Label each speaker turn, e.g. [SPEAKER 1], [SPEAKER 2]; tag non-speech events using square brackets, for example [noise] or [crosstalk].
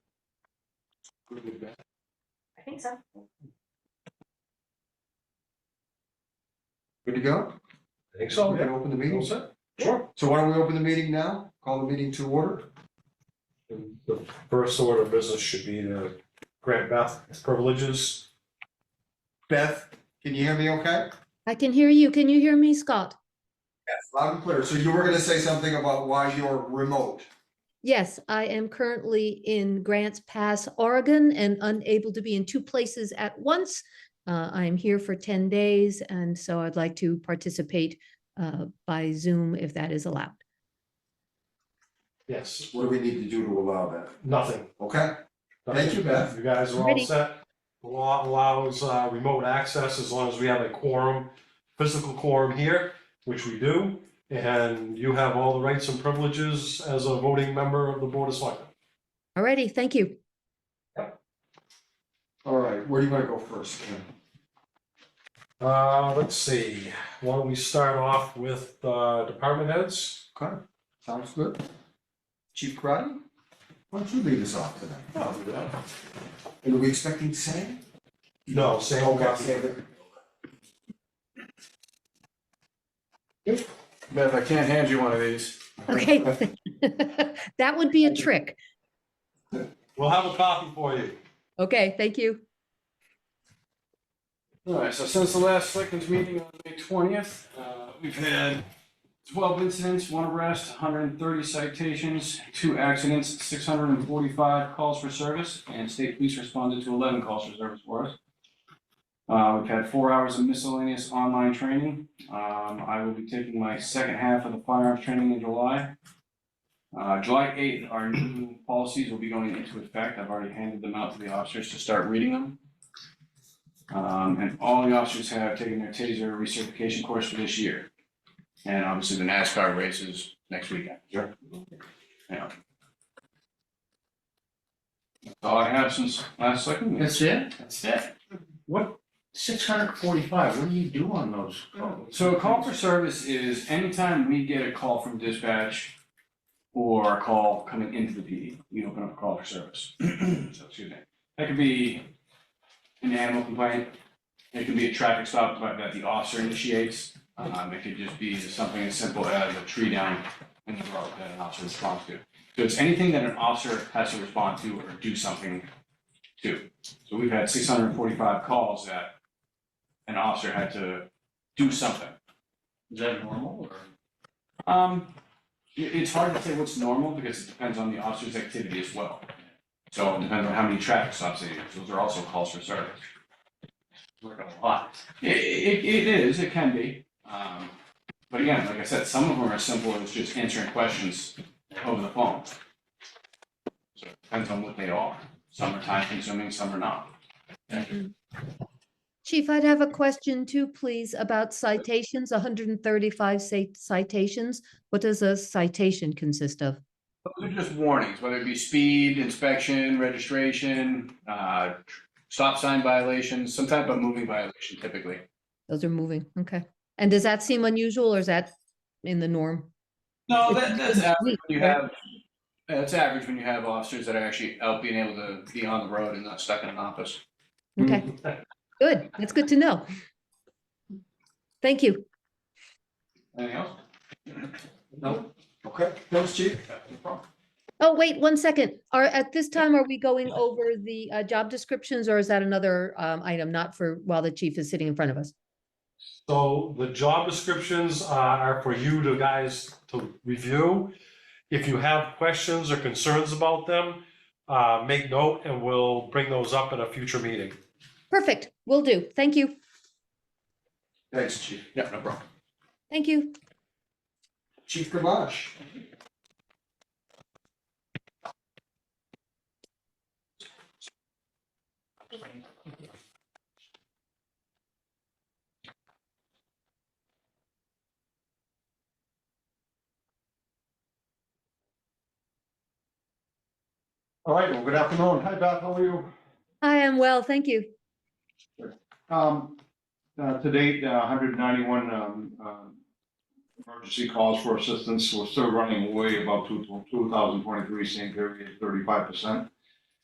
[SPEAKER 1] good with that?
[SPEAKER 2] I think so.
[SPEAKER 1] Good to go?
[SPEAKER 3] I think
[SPEAKER 1] We can open the meeting.
[SPEAKER 3] Sure.
[SPEAKER 1] So why don't we open the meeting now? Call the meeting to order.
[SPEAKER 3] The first order of business should be to grant Beth privileges.
[SPEAKER 1] Beth, can you hear me okay?
[SPEAKER 4] I can hear you. Can you hear me, Scott?
[SPEAKER 1] Loud and clear. So you were gonna say something about why you're remote.
[SPEAKER 4] Yes, I am currently in Grants Pass, Oregon, and unable to be in two places at once. Uh, I am here for 10 days, and so I'd like to participate uh, by Zoom if that is allowed.
[SPEAKER 3] Yes.
[SPEAKER 1] What do we need to do to allow that?
[SPEAKER 3] Nothing.
[SPEAKER 1] Okay, Thank you, Beth.
[SPEAKER 3] You guys are all
[SPEAKER 4] Ready.
[SPEAKER 3] set. The law allows uh, remote access as long as we have a quorum, physical quorum here, which we do. And you have all the rights and privileges as a voting member of the Board of Selectmen.
[SPEAKER 4] Alrighty, thank you.
[SPEAKER 1] all right. Where do you wanna go first, Ken?
[SPEAKER 3] Uh, let's see, why don't we start off with, uh, department heads?
[SPEAKER 1] Okay, sounds good. Chief Karati, why don't you lead us off tonight? And are we expecting Sam?
[SPEAKER 3] No, Sam.
[SPEAKER 1] Okay, Sam.
[SPEAKER 5] Beth, I can't hand you one of these.
[SPEAKER 4] Okay. [laughs] That would be a trick.
[SPEAKER 3] We'll have a copy for you.
[SPEAKER 4] Okay, thank you.
[SPEAKER 5] All right, so since the last selectmen's meeting on May twentieth, uh, we've had twelve incidents, one arrest, hundred and thirty citations, two accidents, six hundred and forty-five calls for service, and state police responded to eleven calls for service for us. Uh, we've had four hours of miscellaneous online training. Um, I will be taking my second half of the firearms training in July. Uh, July eighth, our new policies will be going into effect. I've already handed them out to the officers to start reading them. Um, and all the officers have taken their taser recertification course for this year. And obviously the NASCAR race is next weekend. Sure. Yeah. That's all I have since last second.
[SPEAKER 6] That's it?
[SPEAKER 5] That's it.
[SPEAKER 6] What, six hundred forty-five, what do you do on those calls?
[SPEAKER 5] So a call for service is anytime we get a call from dispatch or a call coming into the PD, we open up a call for service. [clears throat] So, excuse me. That could be an animal complaint, it could be a traffic stop that that the officer initiates. Um, it could just be something as simple as a tree down in the road that an officer responds to. So it's anything that an officer has to respond to or do something to. So we've had six hundred and forty-five calls that an officer had to do something.
[SPEAKER 6] Is that normal or?
[SPEAKER 5] Um, i- it's hard to say what's normal because it depends on the officer's activity as well. So it depends on how many traffic stops they do, those are also calls for service.
[SPEAKER 6] Work a lot.
[SPEAKER 5] I- i- it, it is, it can be, um, but again, like I said, some of them are simple as just answering questions over the phone. So it depends on what they are, some are time consuming, some are not.
[SPEAKER 4] Chief, I'd have a question too, please, about citations, 135 cit- citations. What does a citation consist of?
[SPEAKER 5] Those are just warnings, whether it be speed, inspection, registration, uh, stop sign violations, some type of moving violation typically.
[SPEAKER 4] Those are moving, okay. And does that seem unusual or is that in the norm?
[SPEAKER 5] No, that, that's average when you
[SPEAKER 4] right?
[SPEAKER 5] have, that's average when you have officers that are actually out being able to be on the road and not stuck in an office.
[SPEAKER 4] [laughs] Okay, good. That's good to know. Thank you.
[SPEAKER 5] Anything else?
[SPEAKER 1] No. Okay, thanks, Chief.
[SPEAKER 4] Oh, wait, one second. Are, at this time, are we going over the uh, job descriptions or is that another um, item, not for, while the chief is sitting in front of us?
[SPEAKER 3] So the job descriptions are are for you to guys to review. If you have questions or concerns about them, uh, make note and we'll bring those up at a future meeting.
[SPEAKER 4] Perfect, we will do. Thank you,
[SPEAKER 1] Thanks, Chief.
[SPEAKER 5] Yeah, no problem.
[SPEAKER 4] thank you.
[SPEAKER 1] Chief Gamache.
[SPEAKER 3] All right, well, good afternoon. Hi, Beth, how are you?
[SPEAKER 4] I am well, thank you.
[SPEAKER 6] Um, uh, to date, hundred ninety-one, um, um, emergency calls for assistance, we're still running way above two, two thousand twenty-three, same period, thirty-five percent.